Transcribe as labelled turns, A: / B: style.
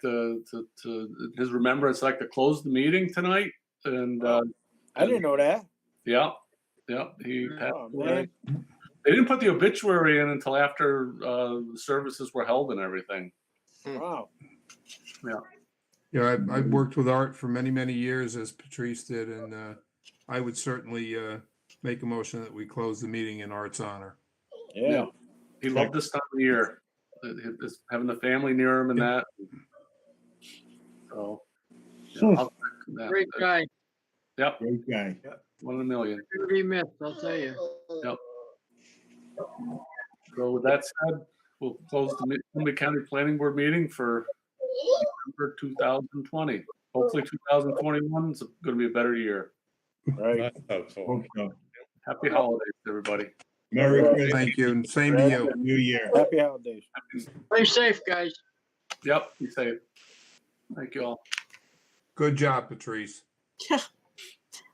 A: to, to, to his remembrance, I'd like to close the meeting tonight. And, uh,
B: I didn't know that.
A: yeah, yeah, he passed
B: Oh,
A: away.
B: man.
A: They didn't put the obituary in until after, uh, the services were held and everything.
B: Wow.
C: Yeah, I, I've worked with Art for many, many years, as Patrice did, and uh, I would certainly uh, make a motion that we close the meeting in Art's honor.
B: Yeah.
A: He loved this time of year, uh, his- having the family near him and that. So.
B: Hmm.
A: yeah, I'll- that-
D: Great guy.
A: Yep,
E: Great guy.
A: one in a million.
D: Gonna be missed, I'll tell you.
A: So with that said, we'll close the Mi- Columbia County Planning Board meeting for November 2020. Hopefully 2021 is going to be a better year.
B: Right.
E: Hope so.
A: Happy holidays, everybody.
E: Merry Christmas,
C: Thank you, and same to you.
E: New Year.
B: Happy holidays.
D: Play safe, guys.
A: Yep, be safe. Thank you all.
C: Good job, Patrice.